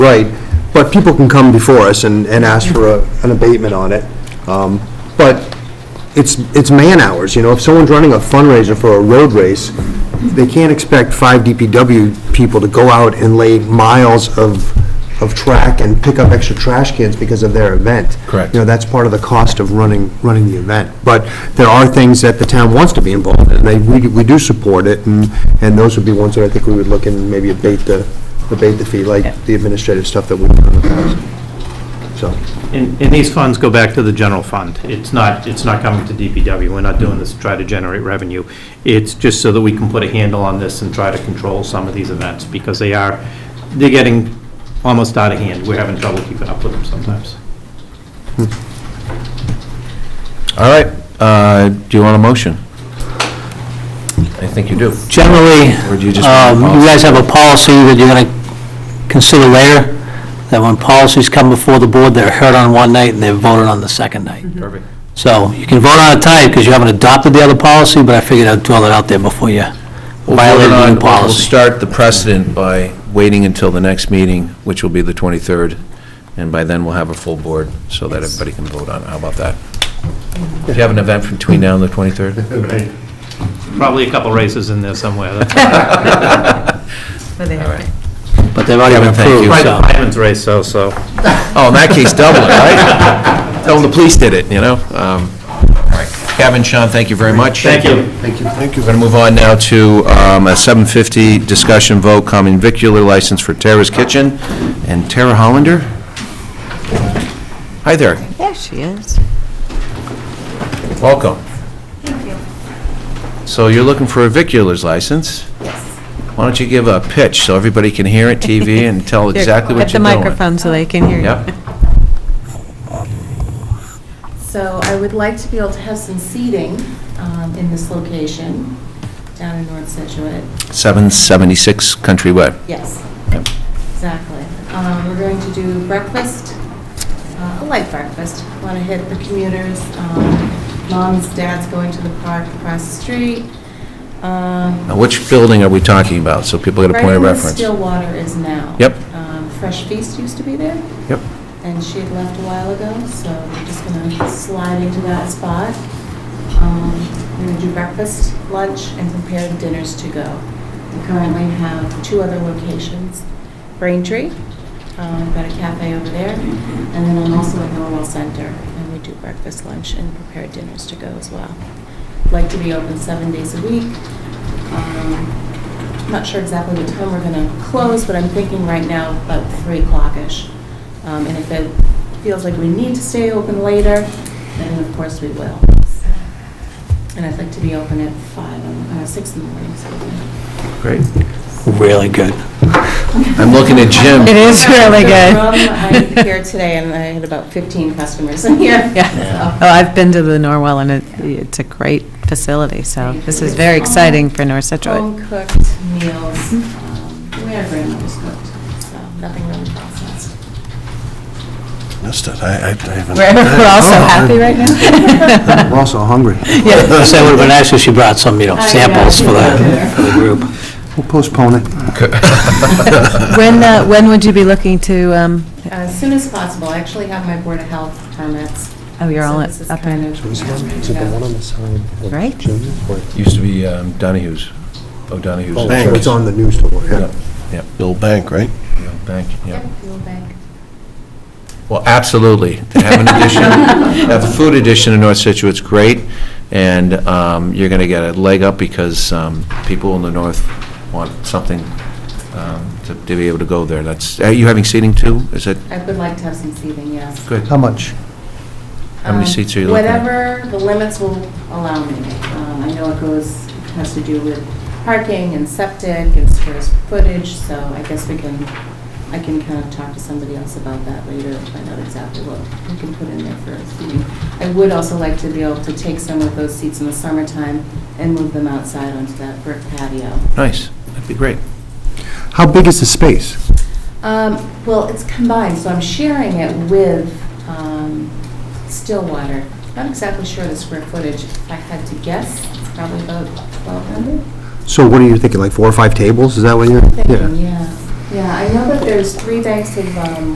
right, but people can come before us and, and ask for a- an abatement on it. Um, But it's, it's man-hours, you know, if someone's running a fundraiser for a road race, they can't expect five DPW people to go out and lay miles of, of track and pick up extra trash cans because of their event. Correct. You know, that's part of the cost of running, running the event. But there are things that the town wants to be involved in, they, we we do support it, and, and those would be ones that I think we would look and maybe abate the, abate the fee, like the administrative stuff that we've done in the past. So, And, and these funds go back to the general fund. It's not, it's not coming to DPW. We're not doing this to try to generate revenue. It's just so that we can put a handle on this and try to control some of these events, because they are, they're getting almost out of hand. We're having trouble keeping up with them sometimes. All right, uh, do you want a motion? I think you do. Generally, Or do you just want um, the you guys have a policy that you're going to consider later, that when policies come before the board, they're heard on one night and they're voted on the second night. Perfect. So you can vote on it tonight because you haven't adopted the other policy, but I figured I'd throw that out there before you violate the new We'll policy. start the precedent by waiting until the next meeting, which will be the 23rd, and by then we'll have a full board so that everybody can vote on it. How about that? Do you have an event between now and the 23rd? Probably a couple races in there somewhere. That's But they have to- But they've already Kevin, been thank you. Probably approved, so. the fireman's race, though, so. Oh, in that case, double it, right? Tell them the police did it, you know? Um, all right. Kevin, Sean, thank you very much. Thank you. We're going to move on now to um, a 7:50 discussion vote, common vicular license for Tara's Kitchen and Tara Hollander. Hi there, There she is. welcome. Thank you. So you're looking for a vicular's license? Yes. Why don't you give a pitch so everybody can hear it, TV, and tell exactly what At the you're doing? microphone so they can hear you. Yep. So I would like to be able to have some seating um, in this location down in North Situate. 776 Country Way. Yes, Yep. exactly. Um, We're going to do breakfast, uh, a light breakfast. Want to hit the commuters. um, Moms, dads going to the park across the street. Um, Now, which building are we talking about, so people get a point of Right where reference? Stillwater is now. Yep. Um, Fresh Feast used to be there. Yep. and she had left a while ago, so we're just gonna slide into that spot. Um, We're gonna do breakfast, lunch, and prepare dinners to go. We currently have two other locations, Braintree, um, we've got a cafe over there, and then I'm also at Norwell Center, and we do breakfast, lunch, and prepare dinners to go as well. Like to be open seven days a week. Um, I'm not sure exactly what time we're going to close, but I'm thinking right now about 3 o'clock-ish. Um, And if it feels like we need to stay open later, then of course we will. And I'd like to be open at 5, um, uh, 6 in the morning, excuse me. Great. Really good. I'm looking at Jim. It is really good. The room, I'm here today, and I had about 15 customers in here. Yeah. Oh, I've been to the Norwell, and it, it's a great facility, so this is very exciting for North Situate. Home-cooked meals, um, the way our grandmothers cooked, so nothing really processed. Missed it. I, I I haven't. We're we're all so Oh. happy right now. Oh, we're also hungry. I said it would have been nice if she brought some, you know, I know. samples for the for the group. We'll postpone it. When, uh, when would you be looking to, um, Uh, As soon as possible, I actually have my Board of Health permits. oh, you're all So up this is up kind and, of- Right. Used to be um, Donahue's, O'Donohue's. Oh, Bank. so it's on the news store, yeah. Yep, yep, The old bank, right? yeah, bank, Yep, yeah. Fuel Bank. Well, absolutely, to have an addition, have a food addition in North Situate's great, and um, you're going to get a leg up because um, people in the north want something um, to to be able to go there. That's, are you having seating too? Is it, I would like to have some seating, yes. good? How much? How many Um, seats are you looking at? Whatever the limits will allow me. Um, I know it goes, has to do with parking and septic and square footage, so I guess we can, I can kind of talk to somebody else about that later and find out exactly what we can put in there for a seating. I would also like to be able to take some of those seats in the summertime and move them outside onto that brick patio. Nice, that'd be great. How big is the space? Um, Well, it's combined, so I'm sharing it with um, Stillwater. Not exactly sure the square footage. If I had to guess, it's probably about 1,200. So what are you thinking, like four or five tables, is that what you're? Thinking, yeah. Yeah, I know that there's three banks of um,